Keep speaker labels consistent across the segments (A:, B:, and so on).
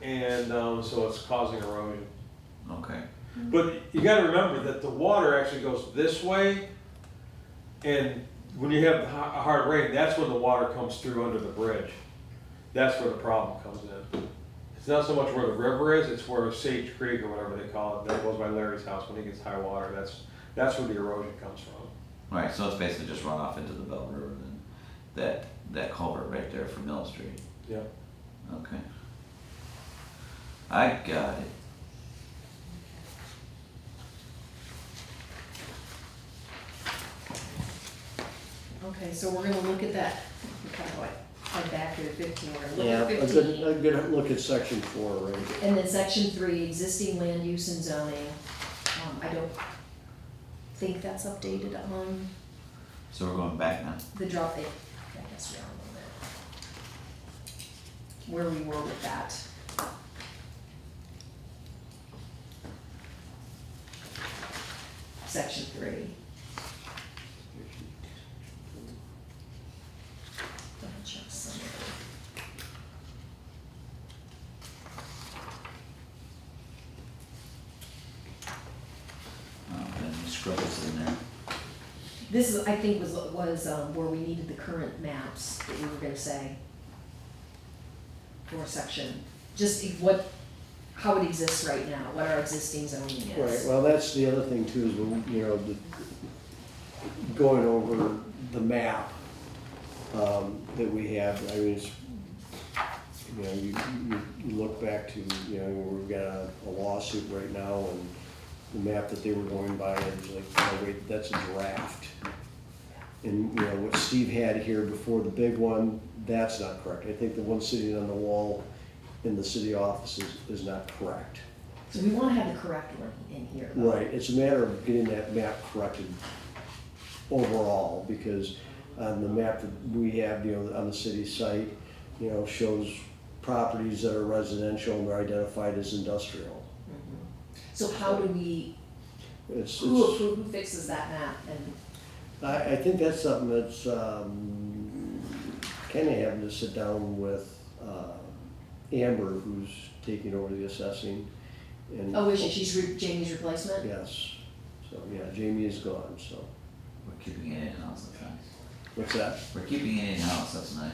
A: and um, so it's causing erosion.
B: Okay.
A: But you got to remember that the water actually goes this way, and when you have a ha- a hard rain, that's when the water comes through under the bridge. That's where the problem comes in. It's not so much where the river is; it's where Sage Creek or whatever they call it that goes by Larry's house when he gets high water. That's that's where the erosion comes from.
B: Alright, so it's basically just run off into the Bell River then, that, that culvert right there from Mill Street,
A: Yeah.
B: okay. I got it.
C: Okay, so we're gonna look at that, kind of like, head back to fifteen, we're gonna
D: Yeah,
C: look
D: a
C: at
D: good,
C: fifteen.
D: a good look at section four, right?
C: And then section three, existing land use and zoning, um, I don't think that's updated on
B: So we're going back now?
C: the drop in, I guess we are a little bit. Where we were with that. Section three. Double check summary.
B: Oh, and the scrubs in there.
C: This is, I think was, was um, where we needed the current maps that you were gonna say. For section, just what, how it exists right now, what our existing zoning
D: Right,
C: is.
D: well, that's the other thing too, is when, you know, the, going over the map, um, that we have, I mean, it's, you know, you, you, you look back to, you know, we've got a a lawsuit right now and the map that they were going by, it was like, oh wait, that's a draft. And, you know, what Steve had here before, the big one, that's not correct. I think the one sitting on the wall in the city offices is not correct.
C: So we wanna have the correct one in here. though.
D: Right, it's a matter of getting that map corrected overall, because on the map that we have, you know, on the city site, you know, shows properties that are residential and are identified as industrial.
C: Mm-hmm. So how do we,
D: It's,
C: who,
D: it's,
C: who fixes that map and,
D: I, I think that's something that's, um, Kenny having to sit down with, uh, Amber, who's taking over the assessing. and-
C: oh, is she, she's re- Jamie's replacement?
D: Yes, so, yeah, Jamie is gone, so,
B: We're keeping it in-house, that's nice.
D: what's that?
B: We're keeping it in-house, that's nice.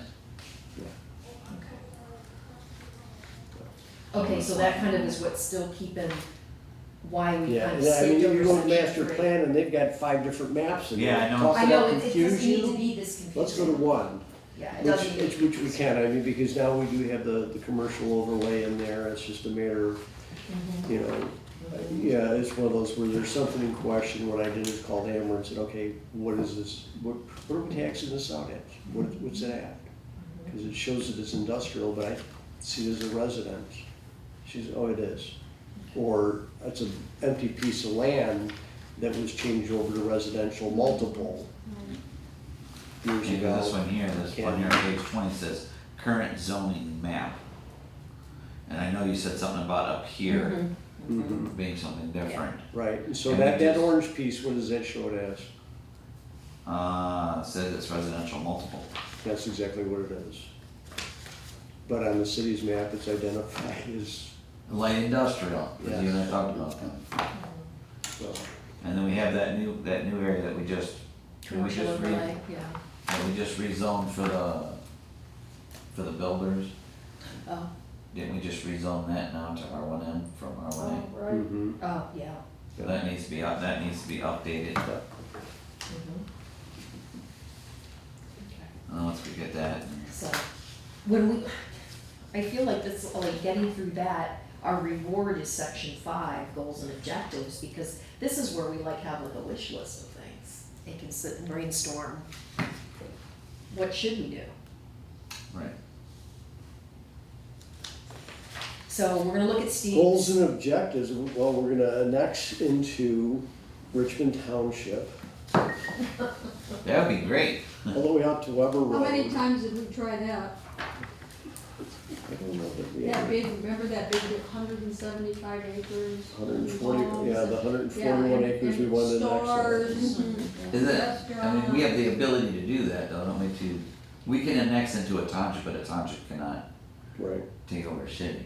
C: Okay. Okay, so that kind of is what's still keeping, why we
D: Yeah,
C: kind of
D: yeah, I mean,
C: skipped
D: you
C: over
D: go to
C: section
D: master
C: three.
D: plan and they've got five different maps and
B: Yeah, I know.
D: talk
C: I
D: about
C: know, it, it doesn't
D: confuse
C: need to
D: you.
C: be this confusing.
D: Let's go to one,
C: Yeah, it
D: which,
C: doesn't need
D: which
C: to be
D: which we
C: confusing.
D: can, I mean, because now we do have the, the commercial overlay in there, it's just a matter of, you know, yeah, it's one of those where there's something in question, what I did is called Amber and said, okay, what is this, what, what are we taxing this out at? What, what's it at? Cause it shows that it's industrial, but I see it as a residence. She said, oh, it is. Or it's an empty piece of land that was changed over to residential multiple years
B: Maybe
D: ago.
B: this one here, this one here, on page twenty says, current zoning map. And I know you said something about up here
C: Mm-hmm.
D: Mhm.
B: being something different.
D: Right, and so
B: And
D: that,
B: it
D: that
B: just-
D: orange piece, what does that show it as?
B: Uh, says it's residential multiple.
D: That's exactly what it is. But on the city's map, it's identified as,
B: Light industrial, because you and I
D: Yes.
B: talked about that.
D: so,
B: And then we have that new, that new area that we just, that we
C: Commercial
B: just re,
C: overlay, yeah.
B: that we just rezoned for the, for the builders.
C: Oh,
B: Didn't we just rezone that now to R one M from R one
D: mhm.
C: oh, yeah.
B: A? That needs to be up, that needs to be updated.
C: Mm-hmm. Okay.
B: Uh, Once we get that,
C: So, when we, I feel like this, like getting through that, our reward is section five, goals and objectives, because this is where we like have like a wish list of things. And can sit and brainstorm. What should we do?
B: right.
C: So we're gonna look at Steve's.
D: Goals and objectives, well, we're gonna annex into Richmond Township,
B: That would be great.
D: all the way out to Weber Road.
E: How many times did we try that?
D: I don't know that we-
E: That big, remember that big hundred and seventy-five acres?
D: 140
E: homes
D: yeah, the
E: and-
D: 141
E: yeah,
D: acres we
E: and- Mm-hmm.
D: wanted
E: and
D: next to that.
E: Stores and
B: Is that, I mean, we have the
E: restaurants.
B: ability to do that though, don't we, to, we can annex into a township, but a township cannot
D: Right.
B: take over a city.